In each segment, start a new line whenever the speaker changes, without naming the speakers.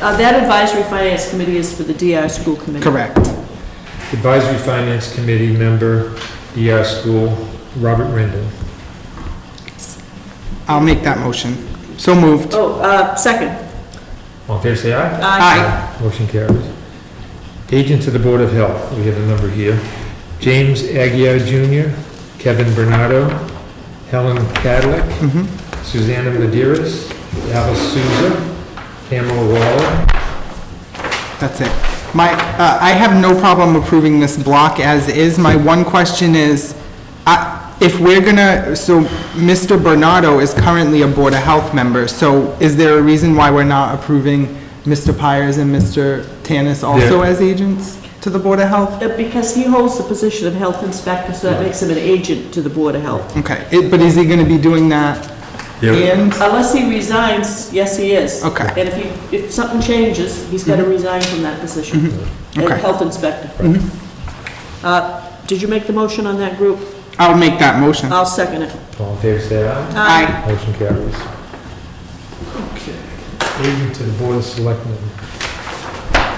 Uh, That advisory finance committee is for the DI school committee.
Correct.
Advisory Finance Committee member, DR School, Robert Rendon.
I'll make that motion. So moved.
Oh, uh, second.
All in favor, say aye.
Aye.
Motion carries. Agents of the Board of Health, we have a number here. James Aguirre Jr., Kevin Bernardo, Helen Cadillac,
Mhm.
Susanna Maderas, Alice Souza, Pamela Waller.
That's it. My, uh, I have no problem approving this block as is. My one question is, I- if we're gonna, so Mr. Bernardo is currently a Board of Health member, so is there a reason why we're not approving Mr. Pires and Mr. Tanis also
There-
as agents to the Board of Health?
Uh, Because he holds the position of health inspector, so that makes him an agent to the Board of Health.
Okay, It- but is he gonna be doing that and?
Unless he resigns, yes, he is.
Okay. Mm-hmm.
And if he, if something changes, he's got to resign from that position. as
Okay. Mm-hmm.
Health inspector. Uh, Did you make the motion on that group?
I'll make that motion.
I'll second it. Uh,
All in favor, say aye.
Aye.
Motion carries. Okay. Agent to the Board of Selectmen.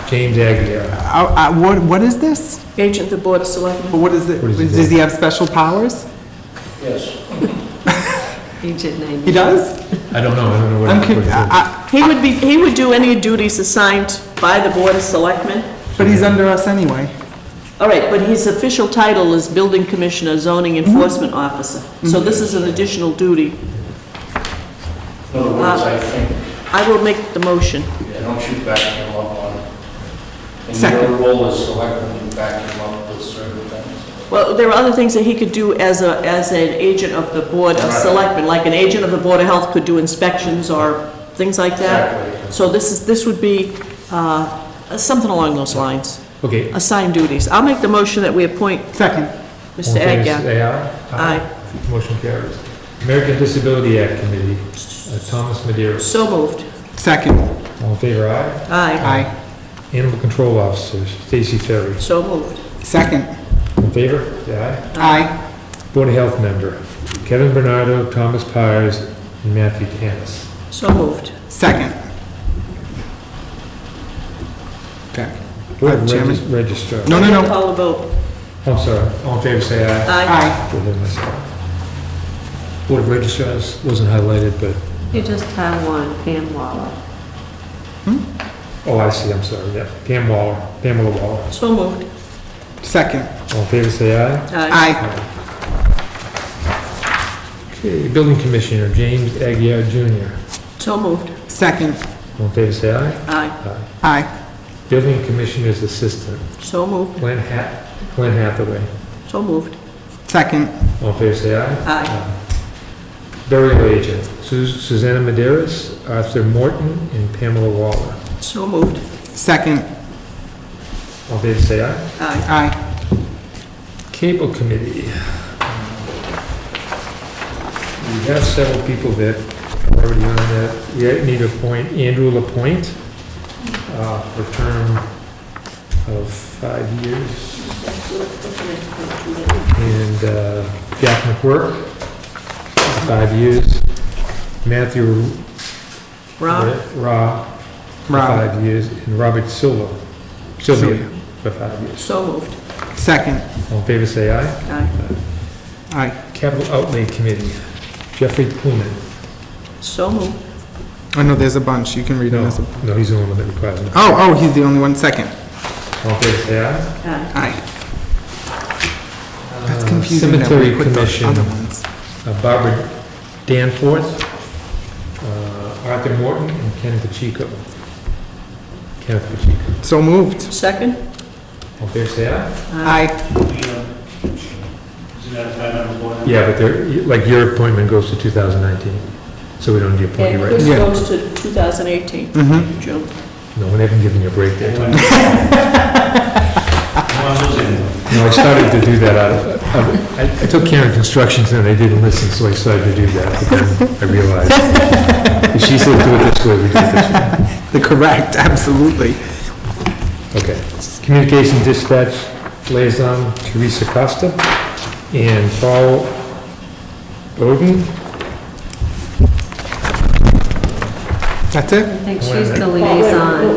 James Aguirre.
I- I- What, what is this?
Agent of the Board of Selectmen.
What is it?
What is he
Does he have special powers?
Yes.
Agent
He
90.
does?
I don't know, I don't know what.
I'm, Uh,
what it
con-
is.
I- I-
He would be, he would do any duties assigned by the Board of Selectmen.
but he's under us anyway.
All right, but his official title is Building Commissioner, Zoning Enforcement Officer. So this is an additional duty.
In other words, I think,
I will make the motion.
yeah, don't shoot back him up on, and your
Second.
role as selectman, you back him up with certain things.
Well, there are other things that he could do as a, as an agent of the Board of
Right.
Selectmen, like an agent of the Board of Health could do inspections or things like that.
Exactly.
So this is, this would be uh, something along those lines,
Okay. all
assigned duties. I'll make the motion that we appoint
Second.
in
Mr.
favor,
Agia.
Say aye.
Aye.
Motion carries. American Disability Act Committee, uh, Thomas Maderos.
So moved.
Second.
All in favor, aye.
Aye.
Aye.
Animal Control Officer, Stacy Ferry.
So moved.
Second.
All in favor, say aye.
Aye.
Board of Health member, Kevin Bernardo, Thomas Pires, and Matthew Tanis.
So moved.
Second. Okay.
Board of
Uh, Chairman?
Regis- Registrar. Oh,
No, no, no.
Call the vote.
I'm sorry, all in favor, say aye.
Aye.
Aye.
Board of Registrar. Board of Registrars wasn't highlighted, but,
You just have one, Pam Waller.
oh, I see, I'm sorry, yeah. Pam Waller, Pamela Waller.
So moved.
Second.
All in favor, say aye.
Aye.
Aye.
Okay, Building Commissioner, James Aguirre Jr.
So moved.
Second.
All in favor, say aye.
Aye.
Aye.
Building Commissioner's Assistant,
So moved.
Glenn Hat, Glenn Hathaway.
So moved.
Second.
All in favor, say aye.
Aye.
Burial Agent, Su- Susanna Maderas, Arthur Morton, and Pamela Waller.
So moved.
Second.
All in favor, say aye.
Aye.
Aye.
Cable Committee. We have several people that are already on that. We need to appoint Andrew Lapointe uh, for a term of five years. And uh, Jack McWork, five years. Matthew
Rob?
Ra, for
Rob.
five years. And Robert Silva, Sylvia, for five years.
So moved.
Second.
All in favor, say aye.
Aye.
Aye.
Capital Outlay Committee, Jeffrey Poonman.
So moved.
Oh, no, there's a bunch. You can read them
No,
as a.
no, he's the one that requires it.
Oh, oh, he's the only one. Second.
All in favor, say aye.
Aye.
Aye. That's
Uh,
confusing. that we
Cemetery
put the
Commission,
Other ones.
uh, Barbara Danforth, uh, Arthur Morton, and Kenneth Pacheco. Kenneth Pacheco.
So moved.
Second?
All in favor, say aye.
Aye.
Isn't that a five-member board?
Yeah, but they're, like, your appointment goes to 2019, so we don't need to appoint
And
you right
this
now.
Yeah.
goes to 2018,
Mm-hmm.
June.
No, we haven't given you a break there.
One of those in.
No, I started to do that out of- out of, I- I took care of Constructions and they didn't listen, so I started to do that, but then I realized, if she said do it this way, we do it this way.
The correct, absolutely.
Okay. Communication Dispatch Liaison Teresa Costa and Paul Bowden.
That's it?
I think she's the liaison.